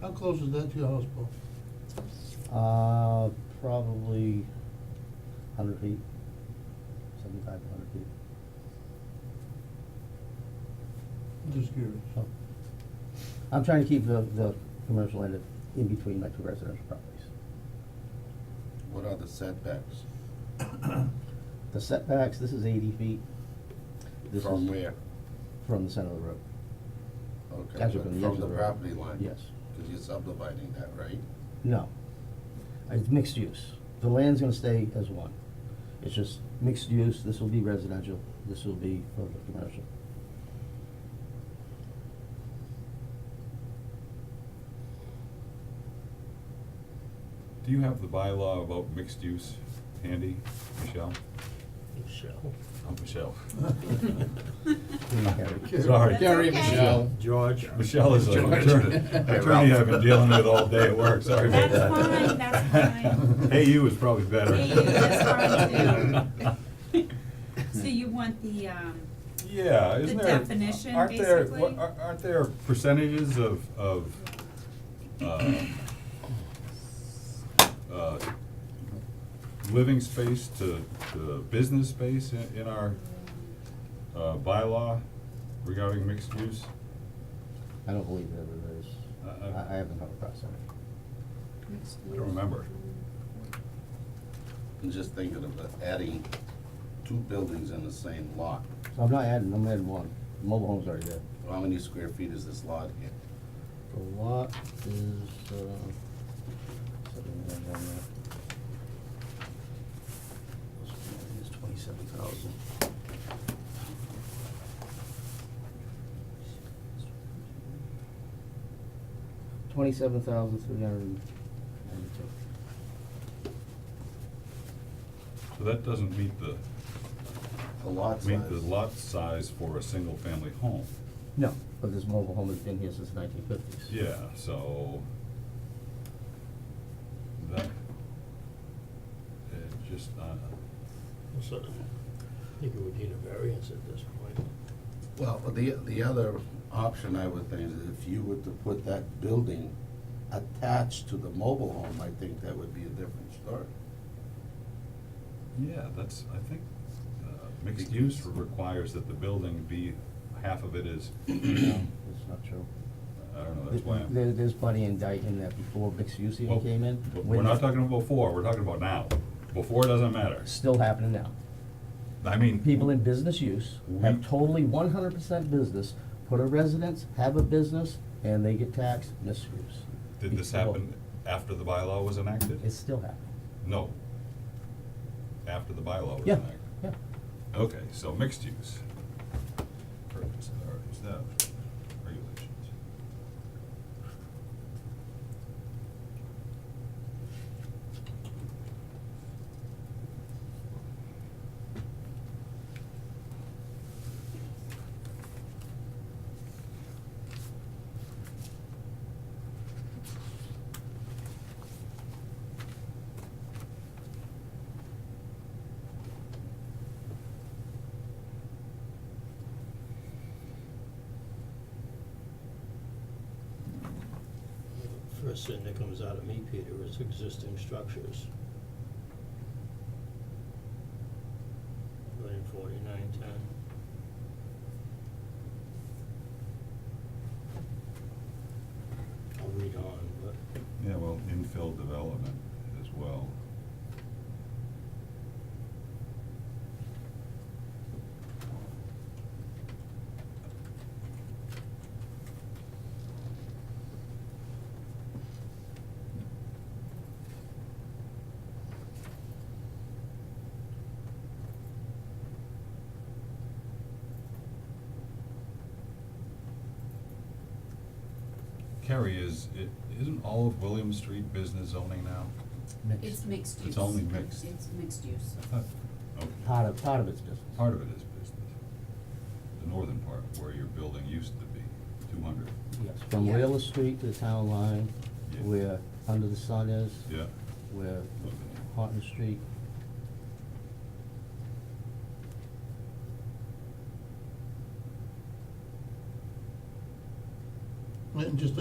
How close is that to your house, Paul? Uh, probably hundred feet, seventy-five, hundred feet. I'm Just curious. So, I'm trying to keep the, the commercial end of- in between my two residential properties. What are the setbacks? The setbacks, this is eighty feet. This From is where? From the center of the road. Okay, That's but from the edge from of the the road. property line? Yes. Because you're subdividing that, right? No. It's mixed use. The land's gonna stay as one. It's just mixed use, this will be residential, this will be for the commercial. Do you have the bylaw about mixed use handy, Michelle? Michelle. Oh, Michelle. Okay. Sorry. That's Gary, okay. Michelle. George. Michelle is an George. attorney, Hey, attorney Ralph. I've been dealing with all day at work, sorry about that. That's fine, that's fine. Hey, you is probably better. Hey, you, that's fine too. So you want the, um, Yeah, isn't The there? definition, aren't there- basically? what- ar- Aren't there percentages of, of, uh, uh, living space to, to business space in, in our, uh, bylaw regarding mixed use? I don't believe that it is. Uh, I- I- I, I haven't come across that. I don't remember. I'm just thinking of the- adding two buildings in the same lot. So I'm not adding, I'm adding one. Mobile home's already there. How many square feet is this lot here? The lot is, uh, something like that, uh, this one is twenty-seven thousand. Twenty-seven thousand three hundred and ninety-two. So that doesn't meet the, The lot size? meet the lot size for a single-family home. No, but this mobile home has been here since nineteen fifties. Yeah, so. That. It just, uh, So, I think you would need a variance at this point. Well, the, the other option I would think is if you were to put that building attached to the mobile home, I think that would be a different story. yeah, that's, I think, uh, mixed use requires that the building be, half of it is, No, that's not true. I don't know, that's why I'm. There, there's plenty in Dayton that before mixed use even Well, came in. but We're when- not talking about before, we're talking about now. Before doesn't matter. Still happening now. I mean. people in business use have Mm-hmm. totally one hundred percent business, put a residence, have a business, and they get taxed misuse. Did this happen after the bylaw was enacted? It's still happening. No. After the bylaw was Yeah, enacted? yeah. Okay, so mixed use. Purpose, or is that regulations? First thing that comes out of me, Peter, is existing structures. Line forty-nine ten. I'll read on, but Yeah, well, infill development as well. Kerry, is, it, isn't all of William Street business zoning now? Mixed. it's mixed It's use. only mixed. It's mixed use. I thought, okay. Part of, part of it's business. Part of it is business. The northern part, where your building used to be, two hundred. Yes, from Yeah. Wheeler Street to the town line, Yeah. where Under the Sun is, Yeah, where okay. Horton Street. And just